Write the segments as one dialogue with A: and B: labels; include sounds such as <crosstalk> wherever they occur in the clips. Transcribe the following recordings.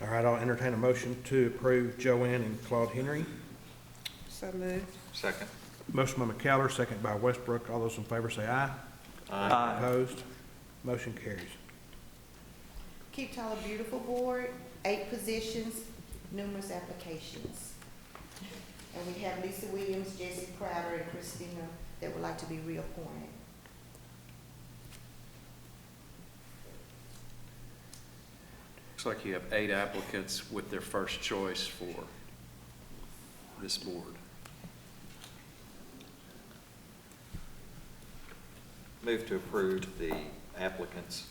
A: All right, I'll entertain a motion to approve Joanne and Claude Henry.
B: So moved.
C: Second.
A: Motion by McCallum, second by Westbrook. All those in favor say aye.
C: Aye.
A: Opposed? Motion carries.
B: Keep Tyler Beautiful Board, eight positions, numerous applications. And we have Lisa Williams, Jesse Crowder, and Christina that would like to be reappointed.
C: Looks like you have eight applicants with their first choice for this board.
D: Move to approve the applicants,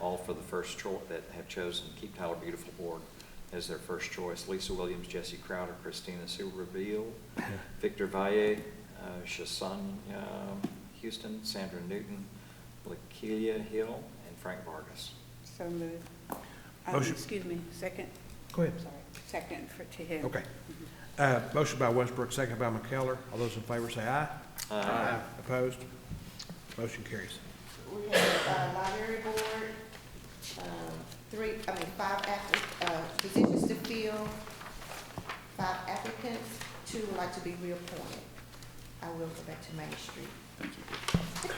D: all for the first choice, that have chosen Keep Tyler Beautiful Board as their first choice. Lisa Williams, Jesse Crowder, Christina Silverville, <laughs> Victor Valle, uh, Shasanya Houston, Sandra Newton, Lakeelia Hill, and Frank Vargas.
E: So moved. Um,
A: Motion.
E: Excuse me, second,
A: Go ahead.
E: sorry, second for, to him.
A: Okay. Uh, Motion by Westbrook, second by McCallum. All those in favor say aye.
D: Aye.
A: Opposed? Motion carries.
B: We have uh, library board, um, three, I mean, five app- uh, positions to fill, five applicants, two would like to be reappointed. I will go back to Main Street.
C: Thank you.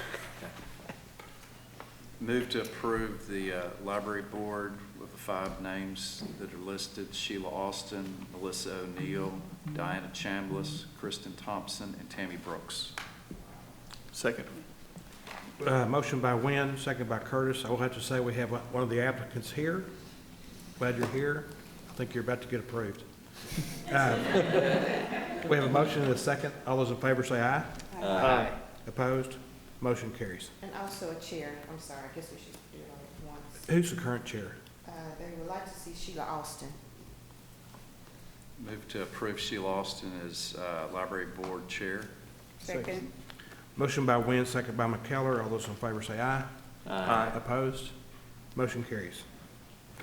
C: Move to approve the uh, library board with the five names that are listed, Sheila Austin, Melissa O'Neill, Diana Chambliss, Kristen Thompson, and Tammy Brooks.
F: Second.
A: Uh, Motion by Wynn, second by Curtis. I will have to say we have one of the applicants here. Glad you're here. I think you're about to get approved. Uh, We have a motion and a second. All those in favor say aye.
F: Aye.
A: Opposed? Motion carries.
B: And also a chair, I'm sorry, I guess we should do it all at once.
A: Who's the current chair?
B: Uh, They would like to see Sheila Austin.
C: Move to approve Sheila Austin as uh, library board chair.
E: Second,
A: Motion by Wynn, second by McKeller. All those in favor say aye.
D: Aye.
A: Opposed? Motion carries.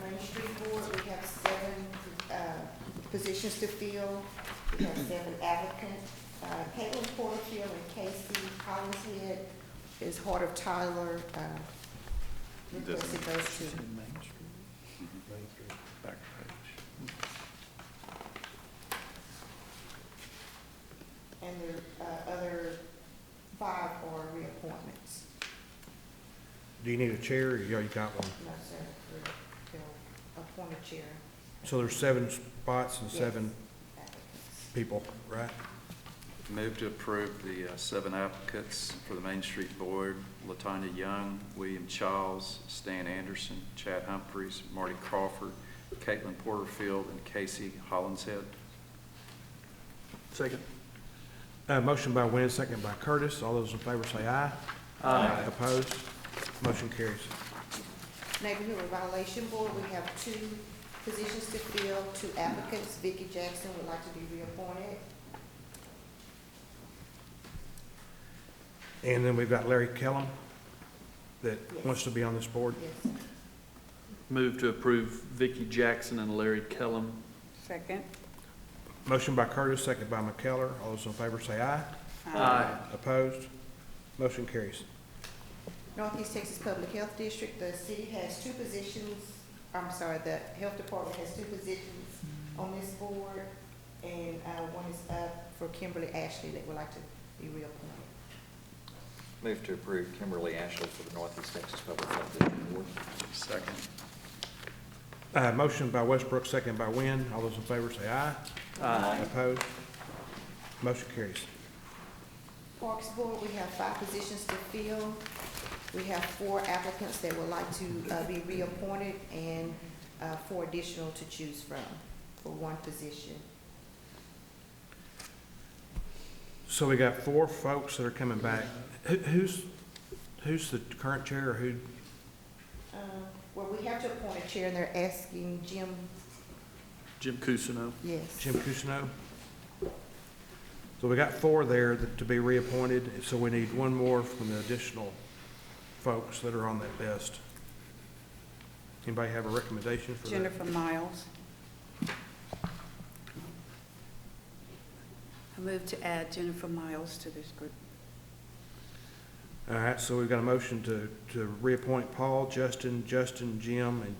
B: Main Street Board, we have seven uh, positions to fill. We have seven applicants. Uh, Caitlin Porterfield and Casey Collinshead is Heart of Tyler. uh, Requested those two.
C: Back page.
B: And the uh, other five are reappointments.
A: Do you need a chair or you already got one?
B: No, sir, they'll appoint a chair
A: So there's seven spots and
B: Yes.
A: seven
B: applicants.
A: people, right?
C: Move to approve the uh, seven applicants for the Main Street Board, Latanya Young, William Childs, Stan Anderson, Chad Humphreys, Marty Crawford, Caitlin Porterfield, and Casey Hollinshead.
F: Second.
A: Uh, motion by Wynn, second by Curtis. All those in favor say aye. Aye. Opposed? Motion carries.
B: Neighborhood Violation Board, we have two positions to fill, two applicants. Vicki Jackson would like to be reappointed.
A: And then we've got Larry Kellum that
B: Yes.
A: wants to be on this board.
B: Yes.
F: Move to approve Vicky Jackson and Larry Kellum.
E: second.
A: Motion by Curtis, second by McKeller. All those in favor say aye.
E: Um,
A: Opposed? Motion carries.
B: Northeast Texas Public Health District, the city has two positions, I'm sorry, the health department has two positions on this board, and, uh, one is up for Kimberly Ashley that would like to be reappointed.
D: Move to approve Kimberly Ashley for the Northeast Texas Public Health District Board.
C: Second.
A: Uh, motion by Westbrook, second by Wynn. All those in favor say aye.
F: Aye.
A: Opposed? Motion carries.
B: Parks Board, we have five positions to fill. We have four applicants that would like to uh, be reappointed and uh, four additional to choose from for one position.
A: So we got four folks that are coming back. Who, who's, who's the current chair or who?
B: Uh, Well, we have to appoint a chair, and they're asking Jim,
F: Jim Cousineau.
B: yes.
A: Jim Cousineau? So we got four there that- to be reappointed, and so we need one more from the additional folks that are on that list. Anybody have a recommendation for that?
E: Jennifer Miles. I move to add Jennifer Miles to this group.
A: All right, so we've got a motion to, to reappoint Paul, Justin, Justin, Jim, and